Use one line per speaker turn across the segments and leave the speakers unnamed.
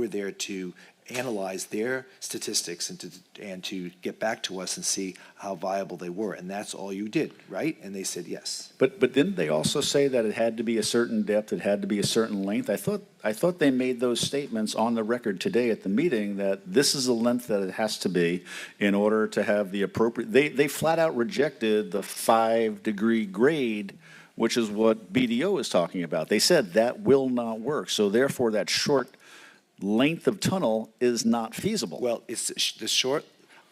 were there to analyze their statistics and to, and to get back to us and see how viable they were. And that's all you did, right? And they said yes.
But, but didn't they also say that it had to be a certain depth, it had to be a certain length? I thought, I thought they made those statements on the record today at the meeting that this is the length that it has to be in order to have the appropriate, they, they flat out rejected the five-degree grade, which is what BDO is talking about. They said that will not work, so therefore that short length of tunnel is not feasible.
Well, it's the sh- the short,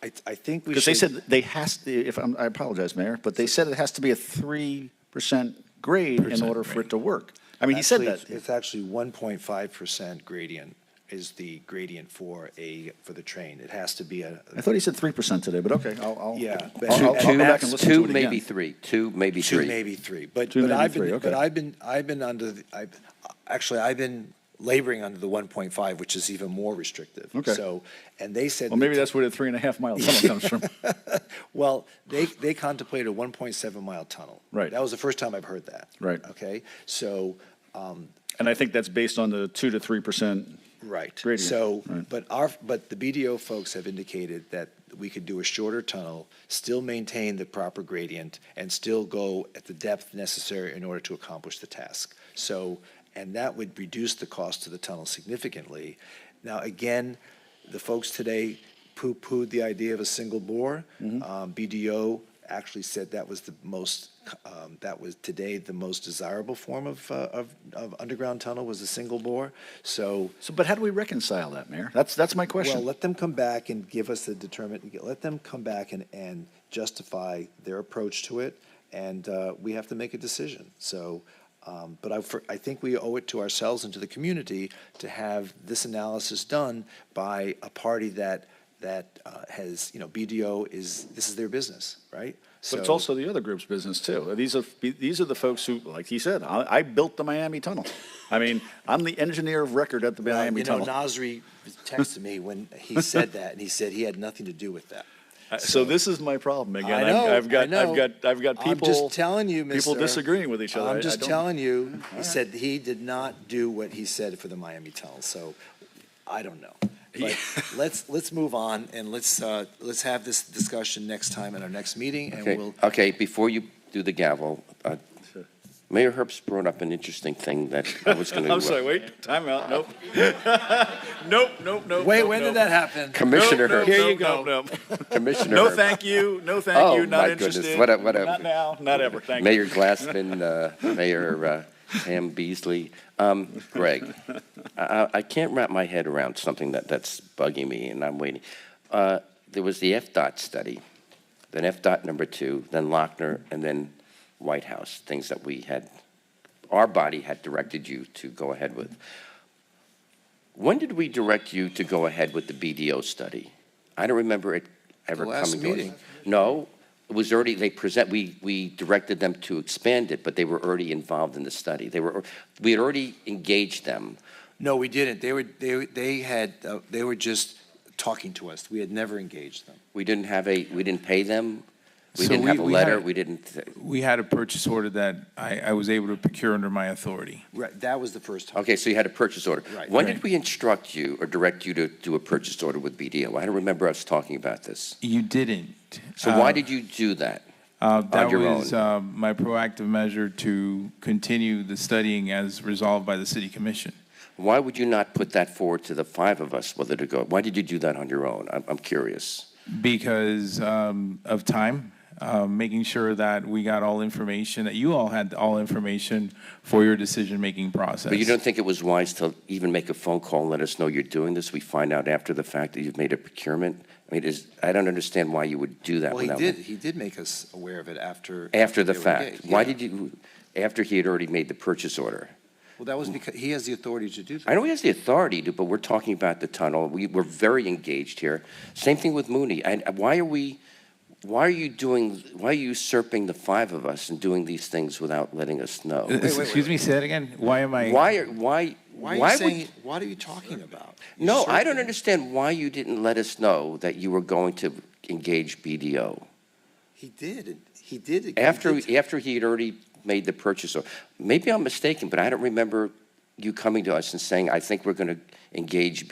I, I think we should.
Because they said they has, to. if, I'm- I apologize, Mayor, but they said it has to be a three percent grade in order for it to work. I mean, he said
Actually, it's-
that.
It's actually one point five percent gradient is the gradient for a, for the train. It has to be a,
I thought he said three percent today, but okay, I'll, I'll.
Yeah,
I'll-
but-
I'll-
Two
I'll go back and
Max,
listen to
two,
it
maybe
again.
three. Two, maybe
two,
three.
maybe three. But,
Two,
but
maybe
I've been,
three, okay.
but I've been, I've been under, the I, actually, I've been laboring under the one point five, which is even more restrictive.
Okay.
So, and they said.
Well, maybe that's where the three and a half mile tunnel comes from.
Well, they, they contemplated a one point seven mile tunnel.
Right.
That was the first time I've heard that.
Right.
Okay, so, um,
And I think that's based on the two to three percent.
right.
Gradient,
So,
right.
but our, but the BDO folks have indicated that we could do a shorter tunnel, still maintain the proper gradient, and still go at the depth necessary in order to accomplish the task. So, and that would reduce the cost of the tunnel significantly. Now, again, the folks today poo-pooed the idea of a single bore.
Mm-hmm.
Um, BDO actually said that was the most, um, that was today the most desirable form of, uh, of, of underground tunnel was a single bore. So,
So, but how do we reconcile that, Mayor? That's, that's my
well,
question.
let them come back and give us the determinant, let them come back and, and justify their approach to it, and, uh, we have to make a decision. So, um, but I, for- I think we owe it to ourselves and to the community to have this analysis done by a party that, that, uh, has, you know, BDO is, this is their business, right?
But it's
So-
also the other group's business too. These are, these are the folks who, like he said, I, I built the Miami Tunnel. I mean, I'm the engineer of record at the
Well,
Miami
You know,
Tunnel.
Nasri texted me when he said that, and he said he had nothing to do with that.
Uh, So this is my problem again.
I
I've-
know,
I've got,
I know.
I've got, I've got people.
I'm just telling you, Mr.
People disagreeing with each other. I- I
I'm just
don't-
telling you, he said he did not do what he said for the Miami Tunnel, so I don't know. But let's, let's move on, and let's, uh, let's have this discussion next time at our next meeting, and
Okay,
we'll,
okay, before you do the gavel, uh,
Sure.
Mayor Herbst brought up an interesting thing that I was going to.
I'm sorry, wait, timeout, nope. Nope, nope, nope.
wait,
nope,
when did
nope.
that happen?
Commissioner
Nope, nope,
Herbst.
Here you go.
nope, nope, nope.
Commissioner
No,
Herbst.
thank you, no,
Oh,
thank you,
my
not
goodness,
interested.
what a- what a-
Not now, not ever, thank you.
Mayor Glassman, uh, Mayor uh, Pam Beasley, um, Greg, I- I, I can't wrap my head around something that, that's bugging me, and I'm waiting. Uh, There was the FDOT study, then FDOT number two, then Lochner, and then White House, things that we had, our body had directed you to go ahead with. When did we direct you to go ahead with the BDO study? I don't remember it ever
The
coming to
last
us.
meeting.
No, it was already, they present, we, we directed them to expand it, but they were already involved in the study. They were, we had already engaged them.
No, we didn't. They were, they, were- they had, uh, they were just talking to us. We had never engaged them.
We didn't have a, we didn't pay them. We
So
didn't
we-
have a
we had
letter,
a-
we didn't,
We had a purchase order that I, I was able to procure under my authority.
Right, that was the first time.
okay, so you had a purchase order.
Right.
When did
Right.
we instruct you or direct you to do a purchase order with BDO? I don't remember us talking about this.
You didn't.
So why did you do that?
Uh, That
your
was uh, my proactive measure to continue the studying as resolved by the city commission.
Why would you not put that forward to the five of us whether to go? Why did you do that on your own? I'm, I'm curious.
Because um, of time, um, making sure that we got all information, that you all had all information for your decision-making process.
But you don't think it was wise to even make a phone call and let us know you're doing this? We find out after the fact that you've made a procurement? I mean, is, I don't understand why you would do that
Well, he
without.
did, he did make us aware of it after.
After the
they were
fact.
engaged.
Why
Yeah.
did you, after he had already made the purchase order?
Well, that was because, he has the authority to do that.
I know he has the authority to, but we're talking about the tunnel. We, we're very engaged here. Same thing with Mooney. And why are we, why are you doing, why are you usurping the five of us and doing these things without letting us know?
Uh, Excuse me, say that again? Why am I?
Why, are- why,
Why are
why
you
would?
saying, what are you talking about?
No, I don't
Usurping.
understand why you didn't let us know that you were going to engage BDO
He did, and he did. he
after,
did t-
after he had already made the purchase. Or Maybe I'm mistaken, but I don't remember you coming to us and saying, I think we're going to engage